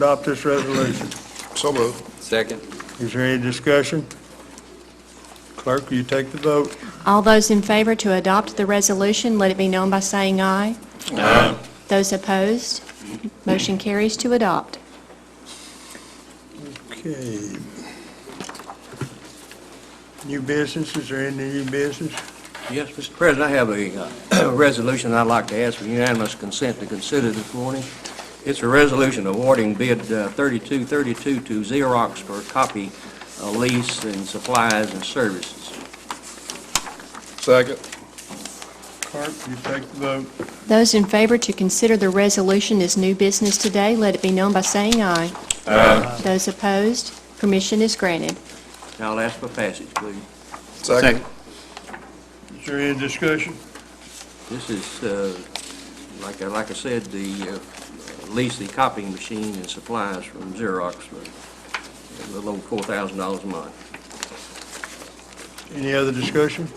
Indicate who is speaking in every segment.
Speaker 1: adopt this resolution.
Speaker 2: So moved.
Speaker 3: Second.
Speaker 1: Is there any discussion? Clerk, will you take the vote?
Speaker 4: All those in favor to adopt the resolution, let it be known by saying aye. Aye. Those opposed, motion carries to adopt.
Speaker 1: Okay. New business, is there any new business?
Speaker 3: Yes, Mr. President, I have a uh, resolution I'd like to ask for unanimous consent to consider this morning. It's a resolution awarding bid uh, 3232 to Xerox for copy uh, lease and supplies and services.
Speaker 2: Second.
Speaker 1: Clerk, will you take the vote?
Speaker 4: Those in favor to consider the resolution as new business today, let it be known by saying aye. Aye. Those opposed, permission is granted.
Speaker 3: Now I'll ask for passage, please.
Speaker 2: Second.
Speaker 1: Is there any discussion?
Speaker 3: This is, uh, like I like I said, the uh, lease, the copying machine and supplies from Xerox for a little over $4,000 a month.
Speaker 1: Any other discussion?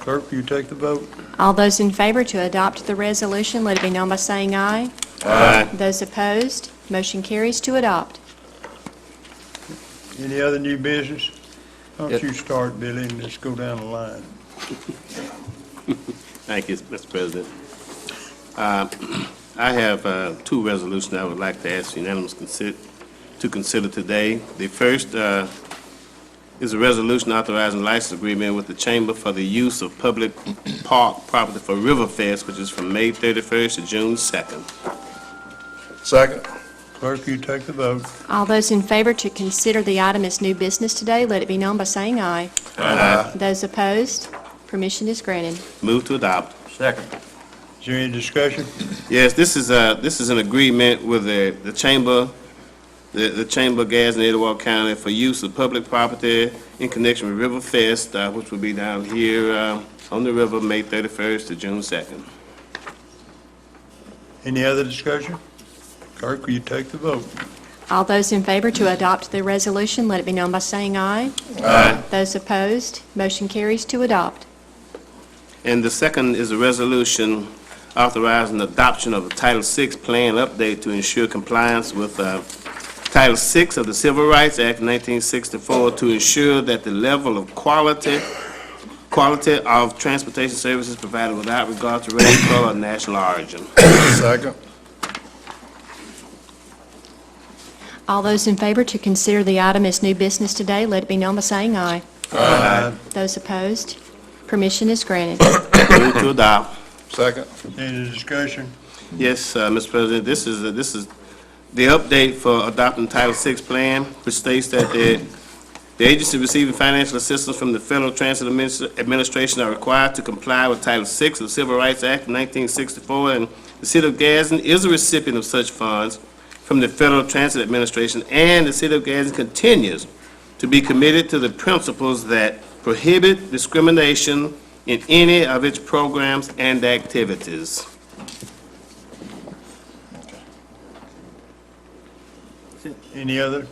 Speaker 1: Clerk, will you take the vote?
Speaker 4: All those in favor to adopt the resolution, let it be known by saying aye. Aye. Those opposed, motion carries to adopt.
Speaker 1: Any other new business? Why don't
Speaker 3: Yes.
Speaker 1: you start, Billy, and let's go down the line.
Speaker 5: Thank you, Mr. President. Uh, I have uh, two resolutions I would like to ask unanimous consi- to consider today. The first uh, is a resolution authorizing license agreement with the Chamber for the use of public park property for River Fest, which is from May 31st to June 2nd.
Speaker 2: Second.
Speaker 1: Clerk, will you take the vote?
Speaker 4: All those in favor to consider the item as new business today, let it be known by saying aye. Aye. Those opposed, permission is granted.
Speaker 5: Move to adopt.
Speaker 3: Second.
Speaker 1: Is there any discussion?
Speaker 5: Yes, this is a, this is an agreement with the, the Chamber, the, the Chamber of Gas in Edgewater County for use of public property in connection with River Fest, uh, which will be down here, uh, on the river, May thirty-first to June second.
Speaker 1: Any other discussion? Clerk, will you take the vote?
Speaker 4: All those in favor to adopt the resolution, let it be known by saying aye. Aye. Those opposed, motion carries to adopt.
Speaker 5: And the second is a resolution authorizing adoption of a Title VI plan update to ensure compliance with uh, Title VI of the Civil Rights Act 1964 to ensure that the level of quality, quality of transportation services provided without regard to race, color, or national origin.
Speaker 2: Second.
Speaker 4: All those in favor to consider the item as new business today, let it be known by saying aye.
Speaker 1: Aye.
Speaker 4: Those opposed, permission is granted.
Speaker 5: Move to adopt.
Speaker 2: Second.
Speaker 1: Any discussion?
Speaker 5: Yes, uh, Mr. President, this is, this is the update for adopting Title VI plan, which states that the, the agency receiving financial assistance from the Federal Transit Adminis- Administration are required to comply with Title VI of the Civil Rights Act of 1964, and the city of Gadsden is a recipient of such funds from the Federal Transit Administration, and the city of Gadsden continues to be committed to the principles that prohibit discrimination in any of its programs and activities.
Speaker 1: Any other?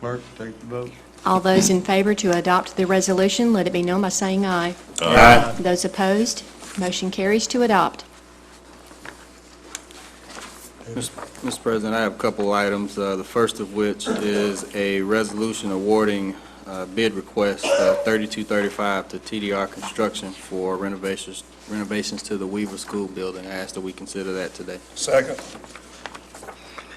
Speaker 1: Clerk, take the vote.
Speaker 4: All those in favor to adopt the resolution, let it be known by saying aye. Aye. Those opposed, motion carries to adopt.
Speaker 6: Mr. President, I have a couple items, uh, the first of which is a resolution awarding uh, bid request uh, 3235 to TDR Construction for renovations renovations to the Weaver School building. I ask that we consider that today.
Speaker 2: Second.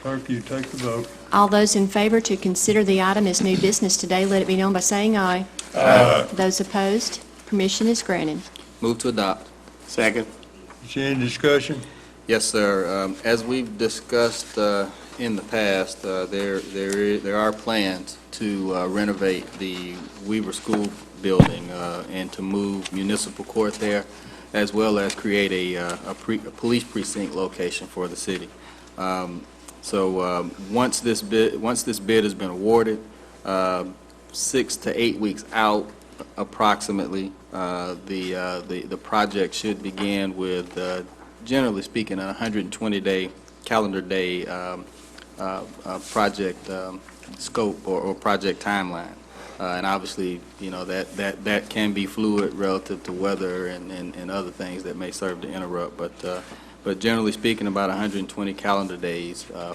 Speaker 1: Clerk, you take the vote.
Speaker 4: All those in favor to consider the item as new business today, let it be known by saying aye. Aye. Those opposed, permission is granted.
Speaker 6: Move to adopt.
Speaker 5: Second.
Speaker 1: Is there any discussion?
Speaker 6: Yes, sir. Um, As we've discussed uh, in the past, uh, there there i- there are plans to uh, renovate the Weaver School building uh, and to move municipal court there, as well as create a uh, a pre- a police precinct location for the city. Um, So um, once this bid, once this bid has been awarded, um, six to eight weeks out approximately, uh, the uh, the the project should begin with uh, generally speaking, a 120-day, calendar day um, uh, uh, project um, scope or- or project timeline. Uh, And obviously, you know, that that that can be fluid relative to weather and and and other things that may serve to interrupt, but uh, but generally speaking, about 120 calendar days uh,